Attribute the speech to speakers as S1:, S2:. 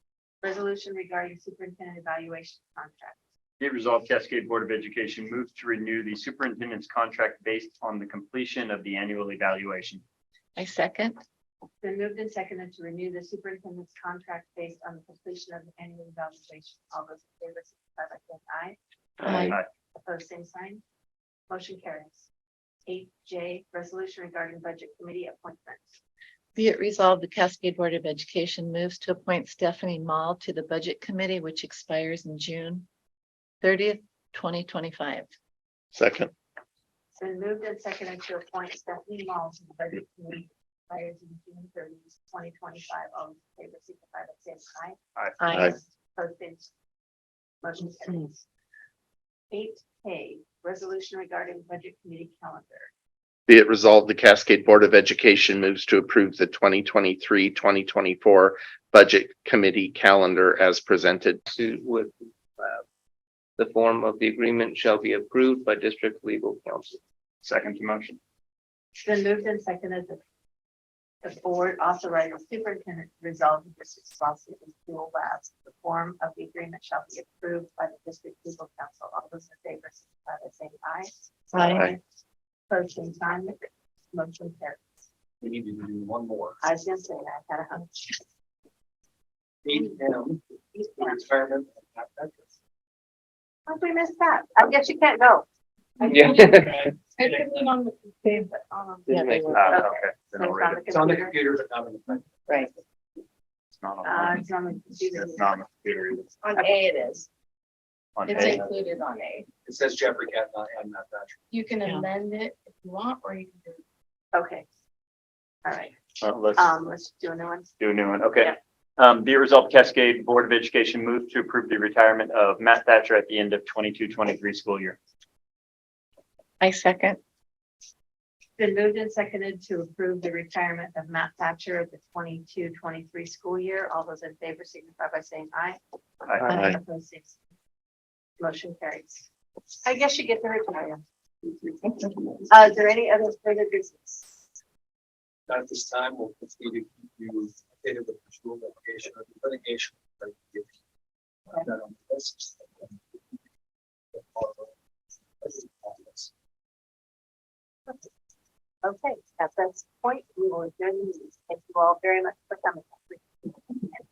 S1: Resolution regarding superintendent evaluation contract.
S2: Be it resolved, Cascade Board of Education moves to renew the superintendent's contract based on the completion of the annual evaluation.
S3: I second.
S1: Then moved and seconded to renew the superintendent's contract based on the completion of the annual evaluation. All those in favor, signify by saying aye.
S3: Aye.
S1: Opposed, same sign. Motion carries. Eight J, resolution regarding budget committee appointments.
S3: Be it resolved, the Cascade Board of Education moves to appoint Stephanie Mall to the Budget Committee, which expires in June thirtieth, twenty twenty-five.
S4: second,
S1: It's been moved and seconded to appoint Stephanie Mall to the budget committee. Expires in June thirtieth, twenty twenty-five. All those in favor, signify by saying aye.
S3: I
S4: Aye.
S1: Posted. Motion carries. Eight K, resolution regarding budget committee calendar.
S4: be it resolved, the Cascade Board of Education moves to approve the 2023-2024 Budget Committee Calendar as presented.
S5: to with uh, the form of the agreement shall be approved by district legal counsel.
S2: Second to motion.
S1: It's been moved and seconded that the board authorizes superintendent to resolve the district's lawsuit with dual labs. The form of the agreement shall be approved by the district legal counsel. All those in favor, signify by saying aye.
S3: Aye.
S1: Opposed, same sign. Motion carries.
S6: We need to do one more.
S1: I was gonna say, I had a hunch.
S6: Eight M, retirement. and acceptance.
S1: How'd we miss that? I guess you can't go.
S5: Yeah.
S1: I think we on the same, but, um,
S3: Yeah, they were.
S2: Ah,
S1: Okay.
S2: okay. Then
S1: so
S2: I'll read it.
S1: It's
S6: It's on the
S1: computer.
S6: computer, but not on the.
S3: Right.
S2: It's not on
S1: Uh,
S2: mine.
S1: it's on the computer.
S2: It's not on the computer either. It's
S7: On A it is.
S2: on
S7: It's
S2: A.
S7: included on A.
S6: It says Jeffrey Cat, not, I'm not that.
S7: You can
S3: Yeah.
S7: amend it if you want, or you can do it.
S1: Okay. All right,
S2: Uh, Let's
S1: um, let's do another one.
S2: do a new one. Okay. Um, Be it resolved, Cascade Board of Education moves to approve the retirement of Matt Thatcher at the end of 22-23 school year.
S3: I second.
S1: Been moved and seconded to approve the retirement of Matt Thatcher at the 22-23 school year. All those in favor signify by saying aye.
S2: Aye.
S3: Aye.
S1: Opposed, same sign. Uh, Motion carries. I guess you get to retire. Uh, is there any other further business?
S6: Not at this time, we'll continue to keep you updated with the school application or the litigation. that we give. Not on the list.
S1: Okay, at this point, we will adjourn the meeting. Thank you all very much for coming.